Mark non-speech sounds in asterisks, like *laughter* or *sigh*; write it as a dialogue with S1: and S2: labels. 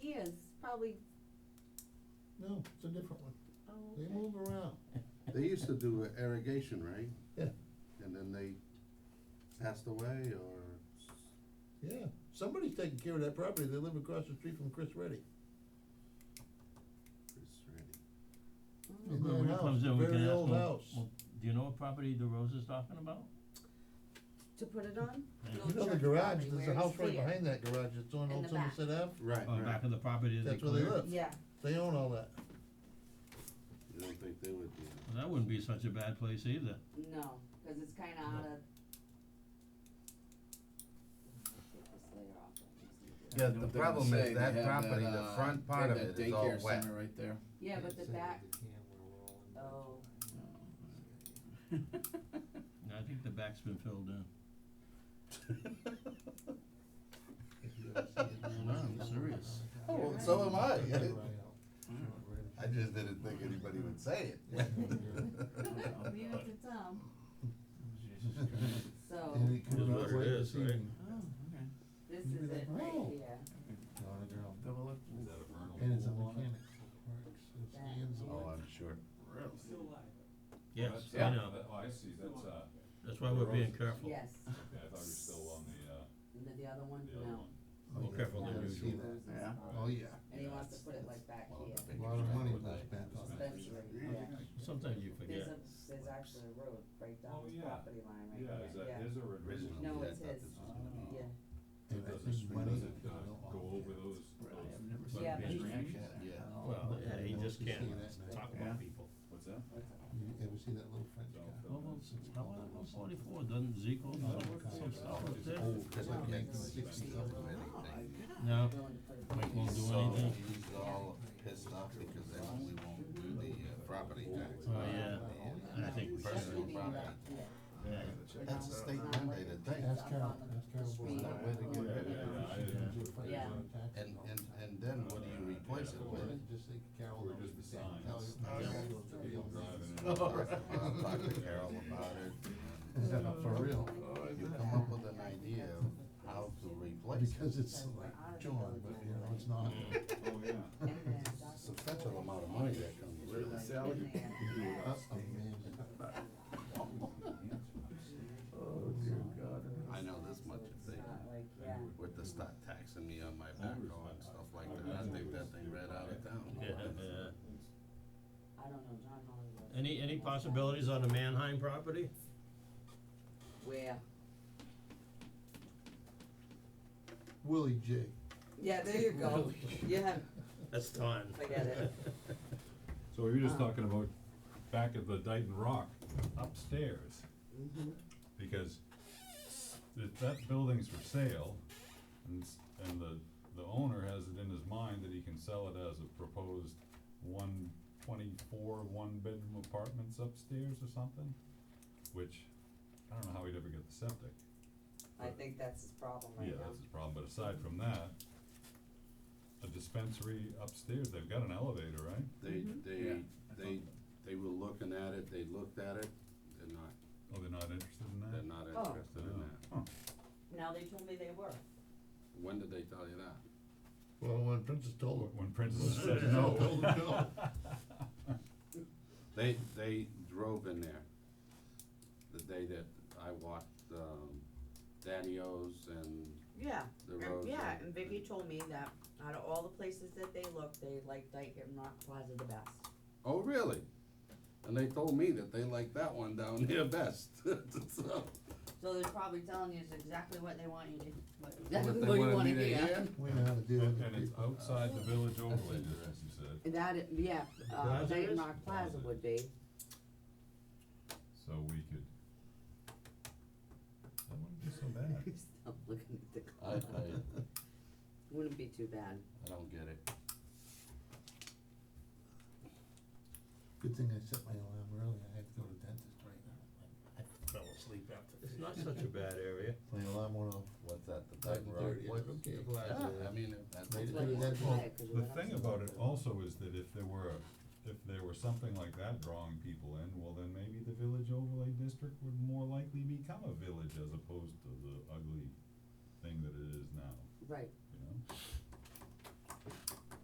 S1: years, probably,
S2: No, it's a different one.
S1: oh,
S2: They
S1: okay.
S2: move around.
S3: They used to do irrigation, right?
S2: Yeah.
S3: And then they passed away or,
S2: Yeah, somebody's taking care of that property. They live across the street from Chris Reddy.
S3: it's ready.
S1: Mm.
S2: In
S4: Well,
S2: their
S4: when he
S2: house,
S4: comes in, we
S2: very
S4: can ask
S2: old
S4: him,
S2: house.
S4: well, do you know what property DeRose is talking about?
S1: To put it on?
S4: Yeah.
S1: Little
S2: You know the
S1: church
S2: garage,
S1: property
S2: there's
S1: where
S2: a
S1: it's
S2: house right
S1: clear.
S2: behind that garage that's on
S1: In
S2: Old
S1: the back.
S2: Somerset Ave.
S3: Right,
S4: Or back
S3: right.
S4: of the property is
S2: That's where they
S4: declared?
S2: live.
S1: Yeah,
S2: They own all that.
S3: You don't think they would do
S4: Well, that wouldn't be such a bad place either.
S1: no, cause it's kinda out of. Take this layer off, I'm just gonna do that.
S5: Yeah,
S6: You know
S5: the
S6: what they're
S5: problem
S6: gonna
S5: is
S6: say,
S5: that
S6: they have
S5: property,
S6: that,
S5: the
S6: uh,
S5: front
S6: they
S5: part
S6: have
S5: of it
S6: that
S5: is all
S6: daycare
S5: wet.
S6: center Right there.
S1: Yeah, but the back, *laughs* oh,
S4: And I think the back's been filled in.
S3: No, I'm serious.
S5: Oh,
S1: well,
S5: *laughs* so am I. I just didn't think anybody would say it.
S1: leave it to Tom, um, so,
S2: And it comes
S3: Is
S2: out
S3: what it
S2: late
S3: is,
S2: this
S3: right?
S2: evening.
S1: this
S2: Maybe
S1: is
S2: they-
S1: it right
S2: Oh.
S1: here,
S2: And it's a mechanic. It's Ian's
S1: That.
S2: old.
S5: Oh, I'm sure.
S4: Yes,
S5: yeah.
S4: I know,
S7: Oh, I see, that's, uh,
S4: that's why we're being careful.
S1: yes,
S7: yeah, I thought you were still on the, uh,
S1: and then the other one,
S7: the other
S1: no.
S7: one.
S2: Oh,
S4: More
S2: yeah,
S4: careful
S2: you
S4: than
S2: gotta
S1: That's
S2: see
S4: usual.
S2: that.
S1: Rose's
S5: Yeah.
S1: house.
S2: Oh, yeah.
S1: And he wants to put it like back
S5: Well,
S1: here,
S5: the
S2: A
S5: big
S2: lot of money
S5: expensive
S2: goes back on that.
S1: Spencer, yeah,
S4: Sometimes you
S1: there's
S4: forget.
S1: a, there's actually a road right down
S7: Oh,
S1: his
S7: yeah.
S1: property line right
S7: Yeah,
S1: there,
S7: is that
S1: yeah,
S7: his or original?
S1: No,
S5: Yeah, I
S1: it's
S5: thought
S1: his. Oh,
S5: this was gonna be-
S1: yeah,
S2: And I
S7: It doesn't,
S2: think money
S7: does it
S2: goes
S7: uh,
S2: along
S7: go
S2: with
S7: over
S2: it.
S7: those, those,
S4: But
S1: Yeah,
S4: being-
S1: but he's-
S5: Yeah.
S4: Well, yeah, he just can't
S2: Yeah.
S4: talk
S5: Yeah.
S4: about people.
S7: what's that?
S1: that's all.
S2: You ever see that little French guy?
S4: Well, well, how about well, forty-four, doesn't Zeke own
S2: No,
S4: some, some
S2: it's
S4: stuff up
S2: old.
S4: there?
S5: Oh,
S2: It's like making sixty dollars.
S4: No,
S1: willing to put it
S5: When
S1: back.
S4: Won't
S5: he's
S4: do
S5: sold,
S4: anything.
S5: he's all pissed off because they won't, we won't do the uh, property tax.
S4: Oh, yeah.
S5: And
S4: I think we
S1: That should
S5: Personal
S1: be
S4: should.
S5: property.
S1: back here.
S4: Yeah.
S5: That's a state mandated thing.
S2: Ask Carol, ask Carol Boyd.
S1: Street.
S5: That way to get rid of it.
S7: Oh, Yeah, I-
S1: Yeah.
S5: And, and, and then what do you replace it with?
S2: Just think Carol.
S7: We're just the signs.
S2: Oh,
S7: *laughs*
S2: *laughs*
S3: *laughs*
S5: I'll talk to Carol about it.
S2: For real,
S5: and Uh, You come up with an idea of how to replace it.
S2: because it's like John, but you know, it's not.
S7: Oh, yeah.
S1: And then that's
S5: Substantial amount of money that comes with it.
S1: in there.
S2: That's amazing.
S5: Oh, dear God. I know this much,
S1: It's
S5: if they,
S1: not like, yeah,
S5: with the start taxing me on my backhoe and stuff like that, I think that thing ran out of town.
S4: Yeah, yeah.
S1: I don't know, John Holland was-
S4: Any, any possibilities on the Manheim property?
S1: Where,
S2: Willie J.
S1: yeah, there you go, yeah,
S4: That's time.
S1: forget it,
S7: So we were just
S1: Ah.
S7: talking about back at the Dighton Rock upstairs,
S1: mhm,
S7: because if that building's for sale, and, s- and the, the owner has it in his mind that he can sell it as a proposed one twenty-four, one-bedroom apartments upstairs or something, which, I don't know how he'd ever get the septic.
S1: I think that's his problem
S7: Yeah,
S1: right now.
S7: that's his problem, but aside from that, a dispensary upstairs, they've got an elevator, right?
S3: They, they,
S5: Yeah.
S3: they, they were looking at it, they looked at it, they're not,
S7: Oh, they're not interested in that?
S3: they're not
S5: Oh.
S3: interested in
S7: No.
S3: that.
S7: Huh.
S1: Now they told me they were,
S3: When did they tell you that?
S2: Well, when Princess told him.
S7: When Princess said *laughs*
S2: No,
S7: no.
S2: told him no.
S3: They, they drove in there the day that I walked, um, Danny O's and
S1: yeah,
S3: the
S1: and-
S3: roads.
S1: yeah, and Vicky told me that out of all the places that they looked, they liked Dyke and Rock Plaza the best.
S3: Oh, really? And they told me that they liked that one down *laughs* there best, so.
S1: So they're probably telling you is exactly what they want you to, what,
S3: what
S1: exactly
S3: they
S1: what you
S3: wanted
S1: wanna
S3: me to
S1: hear.
S3: hear?
S2: We know how to deal with
S7: And
S2: the
S7: and it's
S2: people.
S7: outside the village overlay
S2: interesting.
S7: district, you said,
S1: And That, it- yeah, uh,
S4: Plaza
S1: Dyke
S4: is?
S1: and Rock Plaza would be,
S7: so we could. That wouldn't be so bad.
S1: stop looking at the
S5: I, I,
S1: clock, wouldn't be too bad.
S5: I don't get it.
S2: Good thing I set my alarm early, I had to go to dentist right now. I fell asleep after.
S4: *laughs* It's not such a bad area.
S2: My alarm went off.
S5: What's that, the Dyton Road?
S2: 7:30,
S5: What?
S2: okay.
S5: Yeah, I mean, if that's.
S2: Made it
S1: Like,
S2: through that
S1: it's
S2: whole-
S1: quiet 'cause
S7: The
S1: we're not
S7: thing
S1: so
S7: about it
S1: loud.
S7: also is that if there were, a- if there were something like that drawing people in, well, then maybe the village overlay district would more likely become a village as opposed to the ugly thing that it is now,
S1: Right,
S7: you know?